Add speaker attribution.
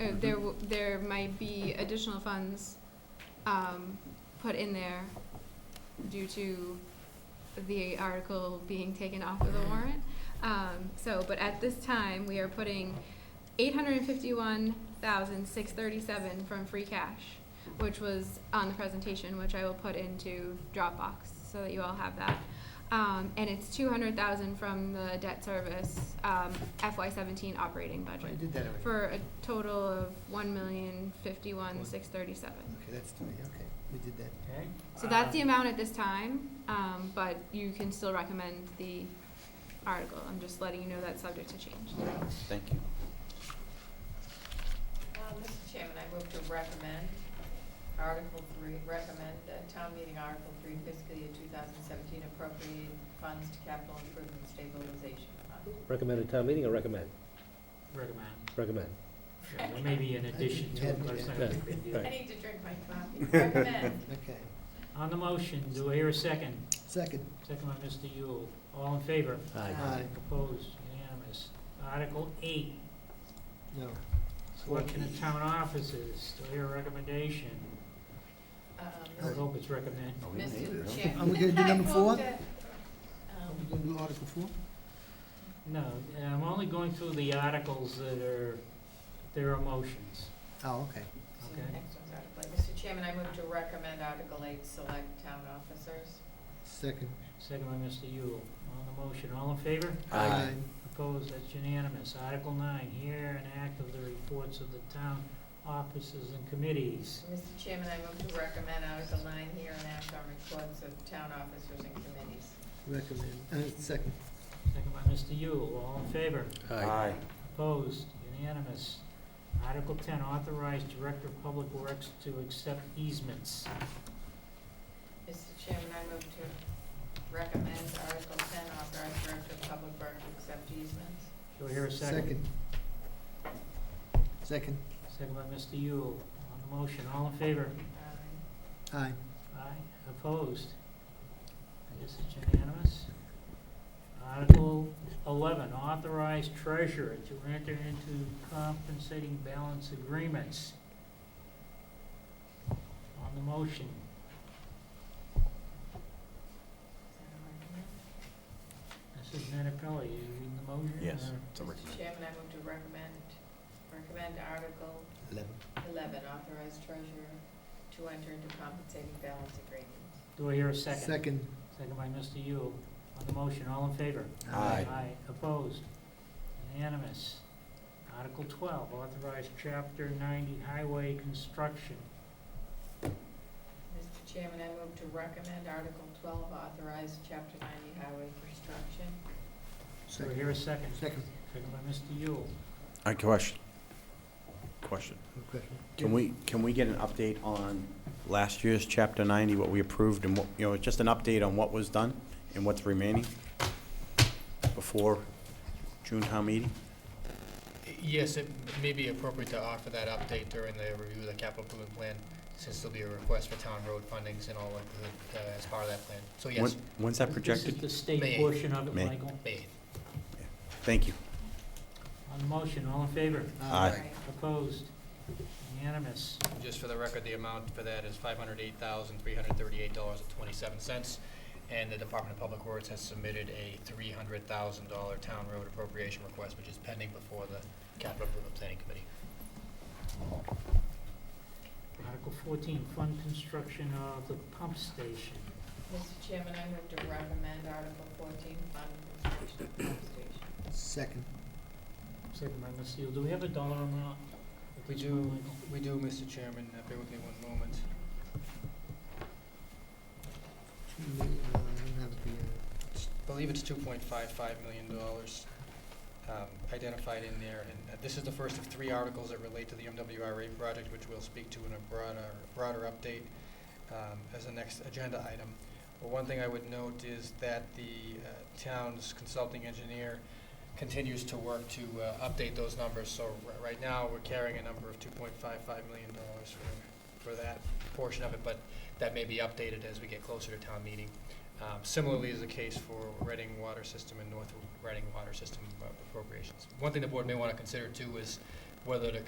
Speaker 1: uh, there, w- there might be additional funds, um, put in there due to the article being taken off of the warrant. Um, so, but at this time, we are putting eight hundred and fifty-one thousand, six thirty-seven from free cash, which was on the presentation, which I will put into Dropbox, so that you all have that. Um, and it's two hundred thousand from the debt service, um, FY seventeen operating
Speaker 2: I
Speaker 1: budget
Speaker 2: did that already.
Speaker 1: for a total of one million fifty-one six thirty-seven.
Speaker 2: Okay, that's, three, okay, we did that.
Speaker 3: Okay.
Speaker 2: Ah.
Speaker 1: So that's the
Speaker 3: Um,
Speaker 1: amount at this time, um, but you can still recommend the article. I'm just letting you know that's subject to change.
Speaker 4: Thank you.
Speaker 5: Uh, Mr. Chairman, I move to recommend Article Three, recommend that Town Meeting Article Three fiscal year two thousand seventeen appropriate funds to capital improvement stabilization fund.
Speaker 6: Recommend a town meeting or recommend?
Speaker 3: Recommend.
Speaker 6: Recommend.
Speaker 3: Yeah, There may be an addition to it, but it's not a
Speaker 6: Yeah,
Speaker 3: big deal.
Speaker 5: I
Speaker 6: right.
Speaker 5: need to drink my coffee. Recommend.
Speaker 2: Okay,
Speaker 3: On the motion, do I hear a second?
Speaker 2: second.
Speaker 3: Second by Mr. Yule. All in favor?
Speaker 2: Aye.
Speaker 5: Um,
Speaker 3: Opposed? Unanimous. Article eight,
Speaker 2: No.
Speaker 3: selection of town offices. Do I hear a recommendation?
Speaker 5: Um,
Speaker 3: I
Speaker 2: Oh,
Speaker 3: hope it's recommend.
Speaker 4: Oh,
Speaker 5: Mr. Chairman.
Speaker 2: Are we gonna do number
Speaker 5: I um,
Speaker 2: four?
Speaker 5: move that,
Speaker 2: Are
Speaker 5: um,
Speaker 2: we gonna do Article four?
Speaker 3: No, I'm only going through the articles that are, there are motions.
Speaker 2: Oh, okay.
Speaker 5: so
Speaker 3: Okay.
Speaker 5: the next one's Article eight. Mr. Chairman, I move to recommend Article Eight, select town officers.
Speaker 2: Second.
Speaker 3: Second by Mr. Yule. On the motion, all in favor?
Speaker 4: Aye.
Speaker 3: Opposed, that's unanimous. Article nine, hear and act of the reports of the town offices and committees.
Speaker 5: Mr. Chairman, I move to recommend Article Nine here and act on reports of town officers and committees.
Speaker 2: Recommend, uh, second.
Speaker 3: Second by Mr. Yule, all in favor?
Speaker 4: Aye.
Speaker 3: Opposed, unanimous. Article ten, authorize Director of Public Works to accept easements.
Speaker 5: Mr. Chairman, I move to recommend Article ten, authorize Director of Public Works to accept easements.
Speaker 3: Do I hear a second?
Speaker 2: Second. Second,
Speaker 3: Second by Mr. Yule. On the motion, all in favor?
Speaker 5: Um,
Speaker 2: aye.
Speaker 3: Aye. Opposed? I guess it's unanimous. Article eleven, authorize treasurer to enter into compensating balance agreements. On the motion,
Speaker 5: is that all right, ma'am?
Speaker 3: Mrs. Menapelli, you reading the motion?
Speaker 4: Yes,
Speaker 3: or-
Speaker 4: it's a
Speaker 5: Mr.
Speaker 4: recommend.
Speaker 5: Chairman, I move to recommend, recommend Article
Speaker 2: Eleven.
Speaker 5: eleven, authorize Treasurer to enter into compensating balance agreements.
Speaker 3: Do I hear a second?
Speaker 2: Second,
Speaker 3: Second by Mr. Yule. On the motion, all in favor?
Speaker 4: Aye.
Speaker 3: Opposed? Unanimous. Article twelve, authorize chapter ninety highway construction.
Speaker 5: Mr. Chairman, I move to recommend Article twelve, authorize Chapter ninety highway construction.
Speaker 3: Do I hear a second?
Speaker 2: second,
Speaker 3: Second by Mr. Yule.
Speaker 4: I question. Question.
Speaker 2: good question.
Speaker 4: Can we, can we get an update on last year's chapter ninety, what we approved and what, you know, just an update on what was done and what's remaining before June town meeting?
Speaker 7: Yes, it may be appropriate to offer that update during the review of the capital improvement plan, since there'll be a request for town road fundings and all likelihood uh, as part of that plan. So
Speaker 4: When-
Speaker 7: yes,
Speaker 4: When's that
Speaker 3: This is
Speaker 4: projected?
Speaker 3: the state
Speaker 7: May.
Speaker 3: portion of it,
Speaker 4: May.
Speaker 3: Michael.
Speaker 7: May
Speaker 4: Thank you.
Speaker 3: On the motion, all in favor?
Speaker 4: Aye.
Speaker 5: Right.
Speaker 3: Opposed? Unanimous.
Speaker 7: Just for the record, the amount for that is five hundred eight thousand, three hundred thirty-eight dollars and twenty-seven cents. And the Department of Public Works has submitted a three hundred thousand dollar town road appropriation request, which is pending before the capital improvement planning committee.
Speaker 3: Article fourteen, fund construction of the pump station.
Speaker 5: Mr. Chairman, I move to recommend Article fourteen, fund construction of pump station.
Speaker 2: Second,
Speaker 3: Second by Mr. Yule. Do we have a dollar amount? at
Speaker 7: We
Speaker 3: this
Speaker 7: do.
Speaker 3: point, Michael?
Speaker 7: We do, Mr. Chairman, uh, bear with me one moment.
Speaker 2: two million, uh, I don't have the, uh,
Speaker 7: I believe it's two point five five million dollars um, identified in there. And uh, this is the first of three articles that relate to the MWRA project, which we'll speak to in a broader, broader update um, as the next agenda item. But one thing I would note is that the uh, town's consulting engineer continues to work to uh, update those numbers. So ri- right now, we're carrying a number of two point five five million dollars for, for that portion of it, but that may be updated as we get closer to town meeting. Um, Similarly is the case for Reading Water System and North Reading Water System appropriations. One thing the board may want to consider too is whether to